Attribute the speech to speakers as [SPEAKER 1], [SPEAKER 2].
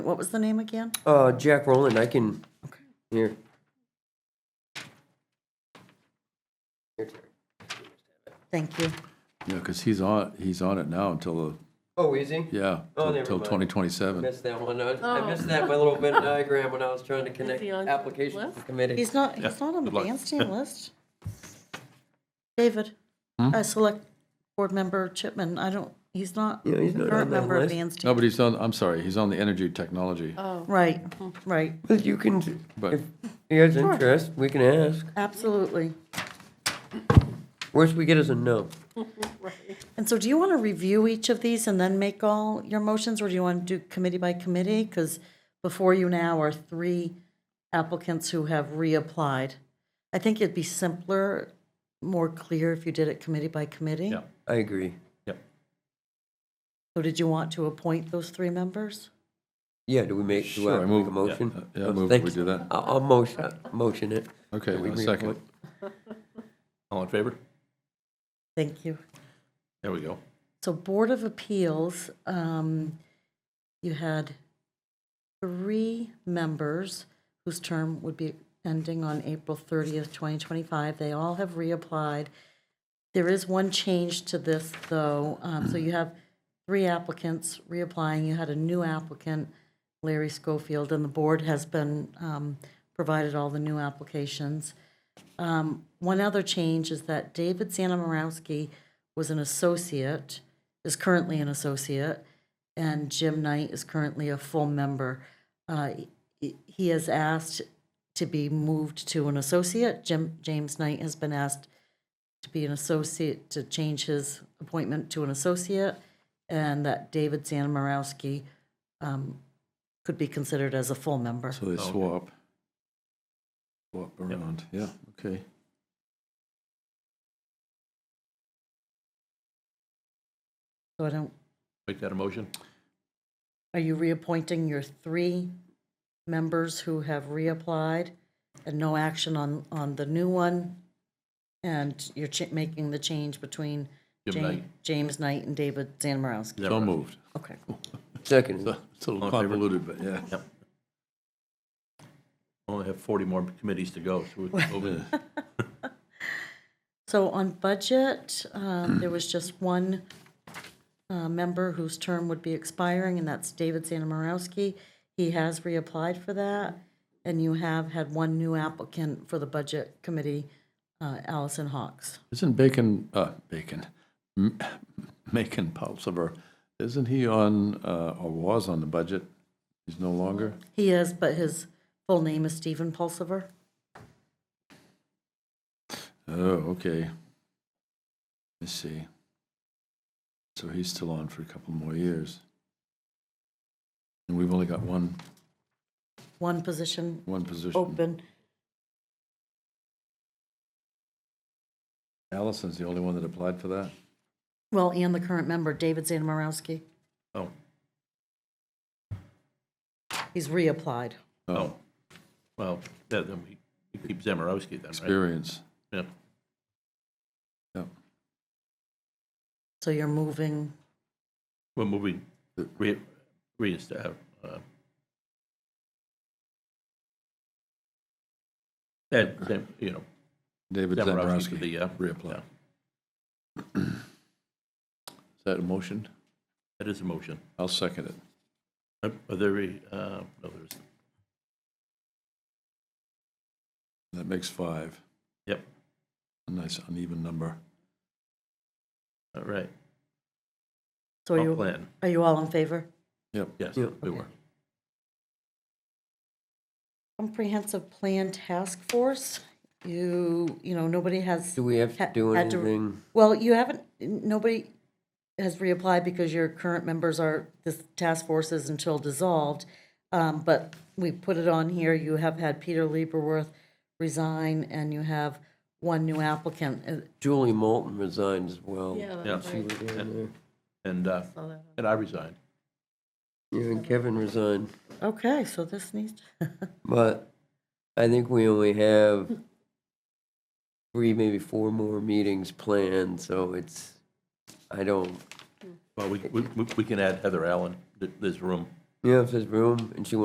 [SPEAKER 1] What was the name again?
[SPEAKER 2] Uh, Jack Rowland, I can, here. Here, Terry.
[SPEAKER 1] Thank you.
[SPEAKER 3] Yeah, because he's on, he's on it now until,
[SPEAKER 2] Oh, is he?
[SPEAKER 3] the yeah,
[SPEAKER 2] Oh, never
[SPEAKER 3] until
[SPEAKER 2] mind.
[SPEAKER 3] 2027.
[SPEAKER 2] Missed that one. I I missed that by little bit diagram when I was trying to connect
[SPEAKER 4] he on the
[SPEAKER 2] applications to
[SPEAKER 4] list?
[SPEAKER 2] committee.
[SPEAKER 1] He's not, he's not on the
[SPEAKER 3] good luck.
[SPEAKER 1] bandstand list. David,
[SPEAKER 3] Hmm?
[SPEAKER 1] uh, select board member Chipman, I don't, he's not
[SPEAKER 2] Yeah, he's not on
[SPEAKER 1] current
[SPEAKER 2] that
[SPEAKER 1] member of
[SPEAKER 2] list.
[SPEAKER 3] No,
[SPEAKER 1] bandstand.
[SPEAKER 3] but he's on, I'm sorry, he's on the energy technology.
[SPEAKER 1] Oh. Right, right,
[SPEAKER 2] But you can,
[SPEAKER 3] But-
[SPEAKER 2] if he has interest, we can ask.
[SPEAKER 1] absolutely.
[SPEAKER 2] Worst we get is a no.
[SPEAKER 1] And so do you want to review each of these and then make all your motions, or do you want to do committee by committee? Because before you now are three applicants who have reapplied. I think it'd be simpler, more clear if you did it committee by committee.
[SPEAKER 3] Yeah.
[SPEAKER 2] I agree.
[SPEAKER 3] Yep.
[SPEAKER 1] So did you want to appoint those three members?
[SPEAKER 2] Yeah, do we make, do I
[SPEAKER 3] Sure, I
[SPEAKER 2] make
[SPEAKER 3] move-
[SPEAKER 2] a
[SPEAKER 3] yeah,
[SPEAKER 2] motion?
[SPEAKER 3] uh, yeah, I move
[SPEAKER 2] Thank
[SPEAKER 3] we
[SPEAKER 2] you.
[SPEAKER 3] do that.
[SPEAKER 2] I'll, I'll motion, motion it.
[SPEAKER 3] Okay,
[SPEAKER 2] that we
[SPEAKER 3] a second.
[SPEAKER 2] reappoint.
[SPEAKER 3] All in favor?
[SPEAKER 1] Thank you.
[SPEAKER 3] There we go.
[SPEAKER 1] So Board of Appeals, um, you had three members whose term would be ending on April 30th, 2025. They all have reapplied. There is one change to this, though. Um, So you have three applicants reapplying. You had a new applicant, Larry Schofield, and the board has been um, provided all the new applications. Um, One other change is that David Zanamorowski was an associate, is currently an associate, and Jim Knight is currently a full member. Uh, he- He has asked to be moved to an associate. Jim, James Knight has been asked to be an associate, to change his appointment to an associate, and that David Zanamorowski um, could be considered as a full member.
[SPEAKER 3] So they swap. Swap around, yeah, okay.
[SPEAKER 1] So I don't,
[SPEAKER 5] Make that a motion?
[SPEAKER 1] are you reappointing your three members who have reapplied and no action on, on the new one? And you're cha- making the change between
[SPEAKER 5] Jim
[SPEAKER 1] Ja-
[SPEAKER 5] Knight.
[SPEAKER 1] James Knight and David Zanamorowski?
[SPEAKER 3] So moved.
[SPEAKER 1] Okay.
[SPEAKER 2] Second.
[SPEAKER 3] It's a little
[SPEAKER 5] All in favor?
[SPEAKER 3] convoluted, but yeah.
[SPEAKER 5] Yep. Only have 40 more committees to go, so we're over.
[SPEAKER 1] So on budget, um, there was just one uh, member whose term would be expiring, and that's David Zanamorowski. He has reapplied for that, and you have had one new applicant for the budget committee, uh, Allison Hawks.
[SPEAKER 3] Isn't Bacon, uh, Bacon, M- Macon Pulsiver, isn't he on, uh, or was on the budget? He's no longer?
[SPEAKER 1] He is, but his full name is Stephen Pulsiver.
[SPEAKER 3] Oh, okay. Let's see. So he's still on for a couple more years. And we've only got one,
[SPEAKER 1] One position
[SPEAKER 3] one position.
[SPEAKER 1] open.
[SPEAKER 3] Allison's the only one that applied for that?
[SPEAKER 1] Well, and the current member, David Zanamorowski,
[SPEAKER 5] Oh,
[SPEAKER 1] he's reapplied.
[SPEAKER 3] Oh,
[SPEAKER 5] well, then then we we keep Zamarowski then, right?
[SPEAKER 3] experience.
[SPEAKER 5] Yeah.
[SPEAKER 3] Yep.
[SPEAKER 1] So you're moving,
[SPEAKER 5] We're moving, re, reinstate, uh, that, that, you know,
[SPEAKER 3] David
[SPEAKER 5] Zamarowski for
[SPEAKER 3] Zambrowski
[SPEAKER 5] the, uh,
[SPEAKER 3] reapplied.
[SPEAKER 5] yeah.
[SPEAKER 3] Is that a motion?
[SPEAKER 5] that is a motion.
[SPEAKER 3] I'll second it.
[SPEAKER 5] Uh, Are there, any, uh, no, there's,
[SPEAKER 3] That makes five.
[SPEAKER 5] yep,
[SPEAKER 3] A nice uneven number.
[SPEAKER 5] all right.
[SPEAKER 1] so are
[SPEAKER 5] Comp
[SPEAKER 1] you,
[SPEAKER 5] plan,
[SPEAKER 1] are you all in favor?
[SPEAKER 3] Yep.
[SPEAKER 5] yes,
[SPEAKER 2] Yeah,
[SPEAKER 5] we were.
[SPEAKER 1] Comprehensive Plan Task Force, you, you know, nobody has.
[SPEAKER 2] Do we have to
[SPEAKER 1] ha-
[SPEAKER 2] do
[SPEAKER 1] had to-
[SPEAKER 2] anything?
[SPEAKER 1] Well, you haven't, nobody has reapplied because your current members are, this task force is until dissolved. Um, But we put it on here, you have had Peter Lieberworth resign, and you have one new applicant. Uh,
[SPEAKER 2] Julie Moulton resigns as well.
[SPEAKER 5] Yeah.
[SPEAKER 4] that's
[SPEAKER 5] she
[SPEAKER 4] right.
[SPEAKER 5] And, uh,
[SPEAKER 4] Saw that.
[SPEAKER 5] and I resigned.
[SPEAKER 2] You and Kevin resigned.
[SPEAKER 1] Uh, Okay, so this needs,
[SPEAKER 2] But I think we only have three, maybe four more meetings planned, so it's, I don't,
[SPEAKER 5] Well, we, we, we can add Heather Allen, Th- there's room.
[SPEAKER 2] Yeah, if there's room and she